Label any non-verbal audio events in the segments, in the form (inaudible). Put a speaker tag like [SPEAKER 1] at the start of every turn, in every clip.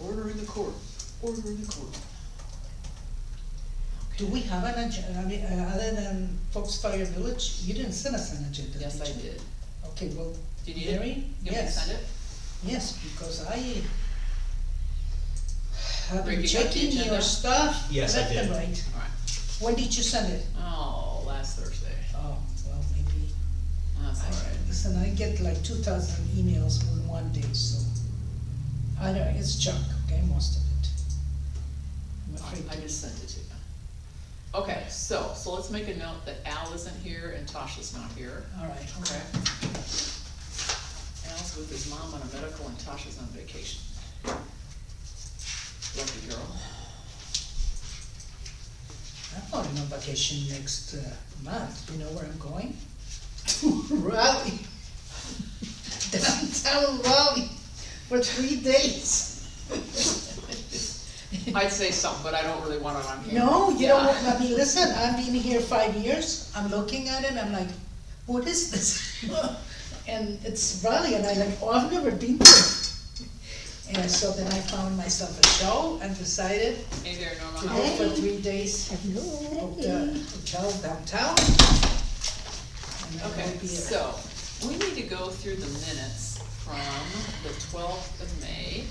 [SPEAKER 1] Order in the court, order in the court.
[SPEAKER 2] Do we have an agenda, I mean, uh, other than Foxfire Village, you didn't send us an agenda,
[SPEAKER 3] Yes, I
[SPEAKER 2] did you?
[SPEAKER 3] did.
[SPEAKER 2] Okay, well,
[SPEAKER 3] Do you need it?
[SPEAKER 2] Mary?
[SPEAKER 3] You want me to
[SPEAKER 2] Yes.
[SPEAKER 3] send it?
[SPEAKER 2] yes, because I have been
[SPEAKER 3] Breaking up the
[SPEAKER 2] checking your
[SPEAKER 3] agenda?
[SPEAKER 2] stuff.
[SPEAKER 4] Yes, I
[SPEAKER 2] left and
[SPEAKER 4] did.
[SPEAKER 2] right.
[SPEAKER 3] Alright.
[SPEAKER 2] When did you send it?
[SPEAKER 3] Oh, last Thursday.
[SPEAKER 2] Oh, well, maybe,
[SPEAKER 3] That's
[SPEAKER 2] I,
[SPEAKER 3] alright.
[SPEAKER 2] listen, I get like two thousand emails in one day, so. I don't, it's junk, okay, most of it. I'm afraid
[SPEAKER 3] I
[SPEAKER 2] to-
[SPEAKER 3] just sent it to you. Okay, so, so let's make a note that Al isn't here and Tasha's not here.
[SPEAKER 2] All right,
[SPEAKER 3] Okay. Al's with his mom on a medical and Tasha's on vacation. Lucky girl.
[SPEAKER 2] (laughs) I'm going on vacation next uh, month, you know where I'm going? (laughs) To Raleigh. (laughs) Downtown Raleigh for three days. (laughs)
[SPEAKER 3] I'd say something, but I don't really want it on camera.
[SPEAKER 2] No, you don't, want-
[SPEAKER 3] Yeah.
[SPEAKER 2] I mean, listen, I've been here five years, I'm looking at it, I'm like, what is this? (laughs) And it's Raleigh, and I like, oh, I've never been there. And so then I found myself a show and decided
[SPEAKER 3] Hey there,
[SPEAKER 2] to
[SPEAKER 3] Norma, how
[SPEAKER 2] go
[SPEAKER 3] are
[SPEAKER 2] for
[SPEAKER 3] you?
[SPEAKER 2] three days.
[SPEAKER 5] Hello.
[SPEAKER 2] hotel, hotel downtown. And that
[SPEAKER 3] Okay,
[SPEAKER 2] will be it.
[SPEAKER 3] so, we need to go through the minutes from the twelfth of May.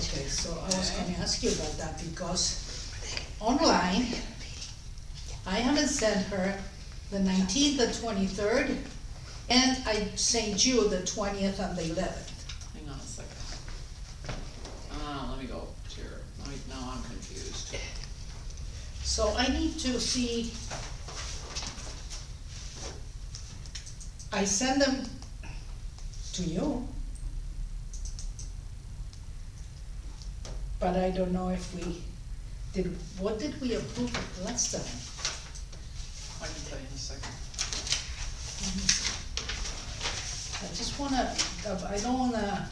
[SPEAKER 2] Okay, so I was gonna ask you about that because online, I haven't sent her the nineteenth, the twenty-third, and I sent you the twentieth and the eleventh.
[SPEAKER 3] Hang on a second. Uh, let me go to your, let me- now I'm confused.
[SPEAKER 2] So I need to see. I send them to you. But I don't know if we, did, what did we approve of last time?
[SPEAKER 3] I can tell you in a second.
[SPEAKER 2] I just wanna, I don't wanna,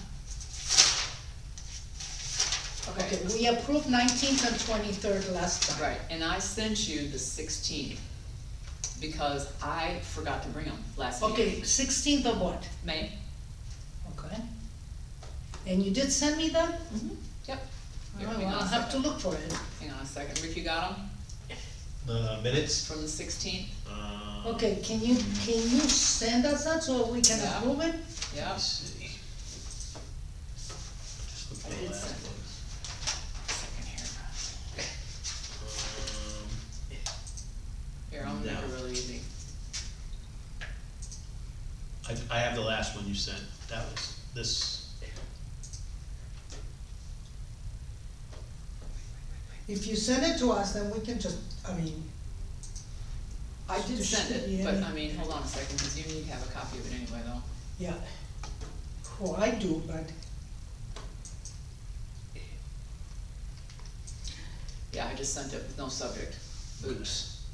[SPEAKER 2] okay,
[SPEAKER 3] Okay,
[SPEAKER 2] we approved nineteenth and twenty-third last time.
[SPEAKER 3] right, and I sent you the sixteenth, because I forgot to bring them last meeting.
[SPEAKER 2] Okay, sixteenth of what?
[SPEAKER 3] May.
[SPEAKER 2] Okay. And you did send me that?
[SPEAKER 3] Mm-hmm. Yep.
[SPEAKER 2] Oh,
[SPEAKER 3] Here,
[SPEAKER 2] well,
[SPEAKER 3] hang on
[SPEAKER 2] I'll
[SPEAKER 3] a
[SPEAKER 2] have to
[SPEAKER 3] second.
[SPEAKER 2] look for it.
[SPEAKER 3] Hang on a second, Rick, you got them
[SPEAKER 4] The minutes,
[SPEAKER 3] from the sixteenth?
[SPEAKER 4] uh.
[SPEAKER 2] Okay, can you, can you send us that so we can
[SPEAKER 3] Yeah.
[SPEAKER 2] approve it?
[SPEAKER 4] Let me
[SPEAKER 3] Yep.
[SPEAKER 4] see. Just look
[SPEAKER 3] I
[SPEAKER 4] at the
[SPEAKER 3] did
[SPEAKER 4] last
[SPEAKER 3] send it. Second here.
[SPEAKER 4] one. Um,
[SPEAKER 3] Here, I'll make
[SPEAKER 4] No.
[SPEAKER 3] it really easy.
[SPEAKER 4] I, I have the last one you sent, that was this,
[SPEAKER 2] If you send it to us, then we can just, I mean.
[SPEAKER 3] I did
[SPEAKER 2] there
[SPEAKER 3] send
[SPEAKER 2] shouldn't be
[SPEAKER 3] it, but
[SPEAKER 2] any-
[SPEAKER 3] I mean, hold on a second, because you need to have a copy of it anyway, though.
[SPEAKER 2] Yeah. Well, I do, but,
[SPEAKER 3] Yeah, I just sent it with no subject. Oops.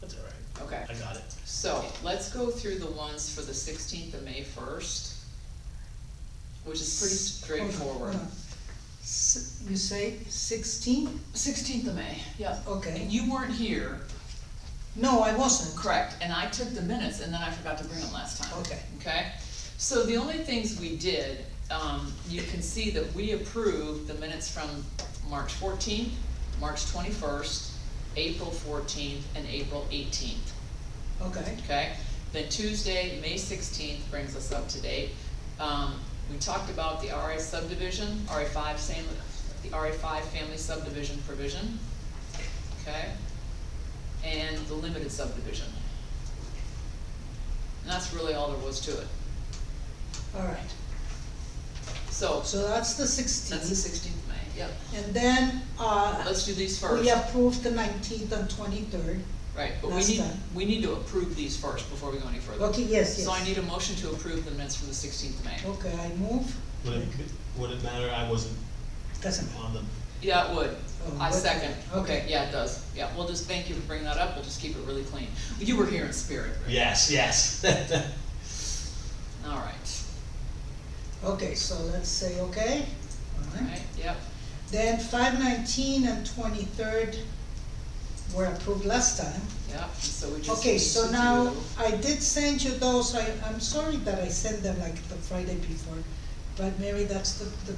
[SPEAKER 4] that's all right,
[SPEAKER 3] Okay.
[SPEAKER 4] I got it.
[SPEAKER 3] So, let's go through the ones for the sixteenth of May first, which is pretty straightforward.
[SPEAKER 2] Hold on. S- You say sixteen?
[SPEAKER 3] Sixteenth of May, yeah. And
[SPEAKER 2] Okay.
[SPEAKER 3] you weren't here,
[SPEAKER 2] No, I wasn't.
[SPEAKER 3] correct, and I took the minutes, and then I forgot to bring them last time.
[SPEAKER 2] Okay.
[SPEAKER 3] Okay, so the only things we did, um, you can see that we approved the minutes from March fourteenth, March twenty-first, April fourteenth, and April eighteenth.
[SPEAKER 2] Okay.
[SPEAKER 3] okay? Then Tuesday, May sixteenth brings us up to date. Um, we talked about the RA subdivision, RA five, same, the RA five family subdivision provision, okay? And the limited subdivision. And that's really all there was to it.
[SPEAKER 2] All right.
[SPEAKER 3] So,
[SPEAKER 2] So that's the
[SPEAKER 3] that's the
[SPEAKER 2] sixteenth.
[SPEAKER 3] sixteenth of May, yep.
[SPEAKER 2] And then, uh,
[SPEAKER 3] Let's do these
[SPEAKER 2] we
[SPEAKER 3] first,
[SPEAKER 2] approved the nineteenth and twenty-third.
[SPEAKER 3] right, but we
[SPEAKER 2] last
[SPEAKER 3] need,
[SPEAKER 2] time.
[SPEAKER 3] we need to approve these first before we go any further.
[SPEAKER 2] Okay, yes, yes.
[SPEAKER 3] So I need a motion to approve the minutes from the sixteenth of May.
[SPEAKER 2] Okay, I move.
[SPEAKER 4] Would it, would it matter, I wasn't
[SPEAKER 2] Doesn't
[SPEAKER 4] on the,
[SPEAKER 3] Yeah, it would.
[SPEAKER 2] Oh,
[SPEAKER 3] I
[SPEAKER 2] would?
[SPEAKER 3] second.
[SPEAKER 2] Okay.
[SPEAKER 3] Yeah, it does. Yeah, we'll just, thank you for bringing that up. We'll just keep it really clean. You were here in spirit, right?
[SPEAKER 4] yes, yes. (laughs)
[SPEAKER 3] All right,
[SPEAKER 2] Okay, so let's say okay.
[SPEAKER 3] all right, yep,
[SPEAKER 2] Then five nineteen and twenty-third were approved last time.
[SPEAKER 3] yep. And so we just
[SPEAKER 2] Okay,
[SPEAKER 3] need
[SPEAKER 2] so
[SPEAKER 3] to
[SPEAKER 2] now,
[SPEAKER 3] do-
[SPEAKER 2] I did send you those, I, I'm sorry that I sent them like the Friday before, but Mary, that's the, the